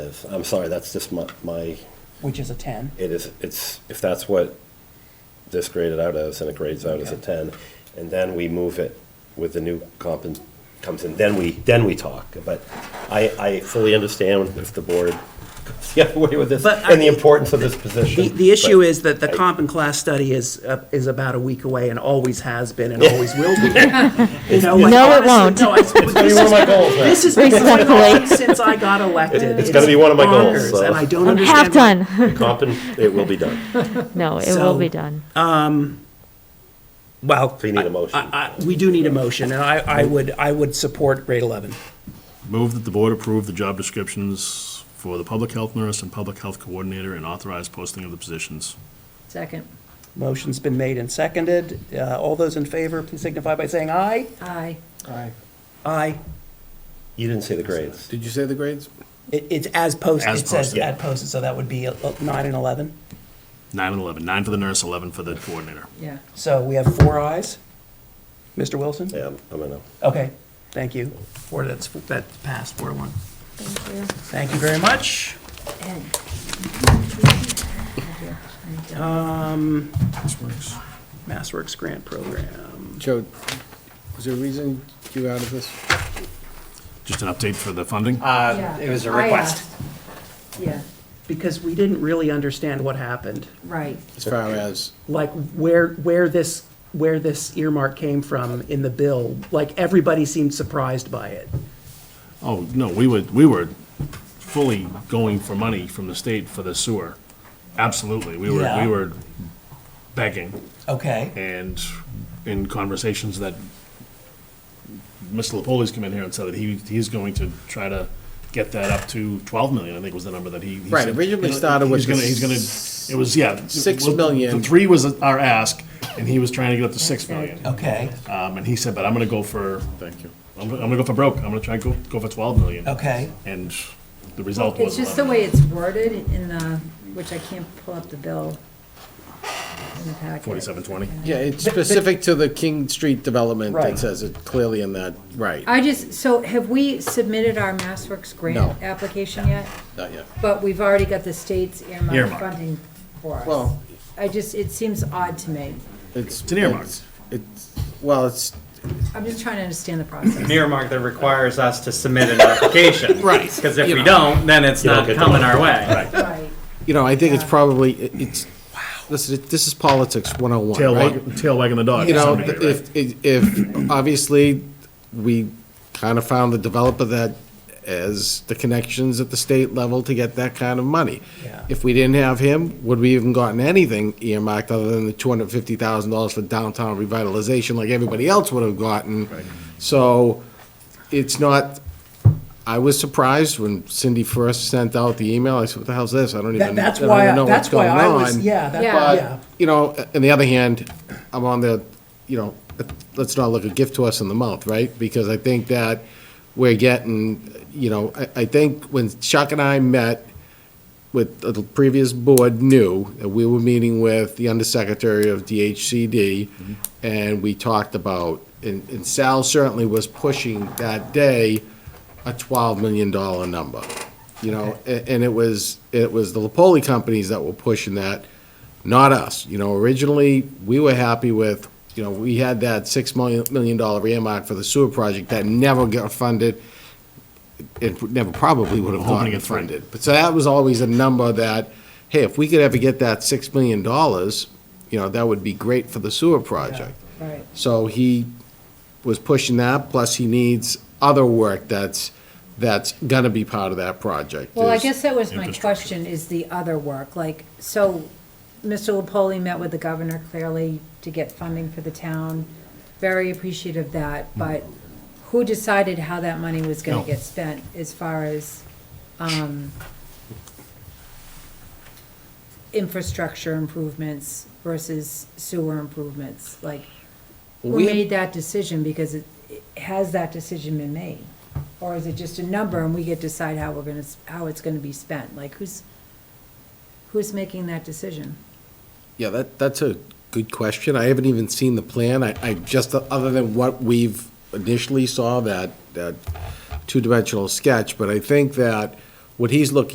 is. I'm sorry, that's just my, my, which is a 10. it is, it's, if that's what this graded out as, and it grades out as a Okay. ten, and then we move it with the new comp and comes in, then we, then we talk. But I, I fully understand if the board goes the other way with this, But I- and the importance of this The, position. the issue but- is that the comp and class study is, uh, is about a week away and always has been and always will be. You know, like, No, honestly, it won't. no, I- It's gonna be one of my goals now. This has been going on Respectfully. since I got elected. It's gonna be one of my goals, bonkers, so. And I don't I'm half understand. why- done. Comp and, it will be done. No, it So- will be done. Well. So you need a motion. I- I- We do need a motion, and I, I would, I would support grade 11. Move that the board approve the job descriptions for the public health nurse and public health coordinator and authorize posting of the positions. Second. Motion's been made and seconded. Uh, All those in favor, please signify by saying aye. Aye. Aye. You didn't say the grades. Did you say the grades? It- It's as posted, As it says posted. as posted, so that would be uh, 9 and 11. Nine and 11, nine for the nurse, 11 for the coordinator. Yeah. So we have four ayes. Mr. Wilson? Yeah, I'm- I'm gonna. Okay, thank you. Four, that's, that passed, four to one. Thank you. Thank you very much. And- This works. MassWorks Um, Grant Program. Joe, was there a reason you out of this? Just an update for the funding? Yeah. Uh, it was a I request. asked. Yeah, Because we didn't really understand what happened, right. As far as, like where, where this, where this earmark came from in the bill. Like, everybody seemed surprised by it. Oh, no, we were, we were fully going for money from the state for the sewer. Absolutely, we were, Yeah. we were begging. Okay. and in conversations that Mr. Lepoli's come in here and said that he, he's going to try to get that up to twelve million, I think was the number that he. he Right, said. originally He's- started with he's gonna- the He's gonna, it was, yeah. six well, million. The three was our ask, and he was trying to get up to six million. Okay, Um, and he said, but I'm gonna go for, thank you, I'm, gonna- I'm gonna go for broke, I'm gonna try and go, go for twelve million. okay. And the result was. It's just the 11. way it's worded in the, which I can't pull up the bill in the packet. 47.20. yeah, it's specific to the King Street development. Right. It says it clearly in that, right, I just, so have we submitted our MassWorks No. grant application yet? not yet. But we've already got the state's earmark Earmark. funding for us. Well- I just, it seems odd to me. It's. an earmark. It's, well, it's, I'm just trying to understand the process. An earmark that requires us to submit an application. Right, Because if you we know. don't, then it's don't not get the coming our way. Right. you know, I think it's probably, it- it's, this is, this is politics one oh one, Tail right? wagging, tail wagging the dog. You to know, some degree, right? if, if, if, obviously, we kind of found the developer that as the connections at the state level to get that kind of money. Yeah. If we didn't have him, would we even gotten anything earmarked other than the two hundred fifty thousand dollars for downtown revitalization like everybody else would have gotten? So it's not, I was surprised when Cindy first sent out the email, I said, what the hell's this? I don't even, That- I That's don't why, even know I- what's that's why going on. I was, yeah, that, Yeah. But, yeah. you know, on the other hand, I'm on the, you know, let's not look a gift to us in the mouth, right? Because I think that we're getting, you know, I, I think when Chuck and I met with uh, the previous board knew that we were meeting with the undersecretary of DHCD, and we talked about, and and Sal certainly was pushing that day a twelve million dollar number. You know, a- and it was, it was the Lapoli companies that were pushing that, not us. You know, originally, we were happy with, you know, we had that six million, million dollar earmark for the sewer project that never got funded. It never probably would have Hoping to gotten get funded. funded. But so that was always a number that, hey, if we could ever get that six million dollars, you know, that would be great for the sewer project. Right. So he was pushing that, plus he needs other work that's, that's gonna be part of that project. Well, I There's- guess that was my Infrastructure. question, is the other work, like, so Mr. Lapoli met with the governor clearly to get funding for the town, very appreciative of that, but who decided how that money was gonna No. get spent as far as, um, infrastructure improvements versus sewer improvements, like, who We- made that decision, because it, it- has that decision been made? Or is it just a number and we get to decide how we're gonna, s- how it's gonna be spent? Like, who's, who's making that decision? Yeah, that, that's a good question. I haven't even seen the plan. I, I just, other than what we've initially saw, that, that two-dimensional sketch, but I think that what he's looking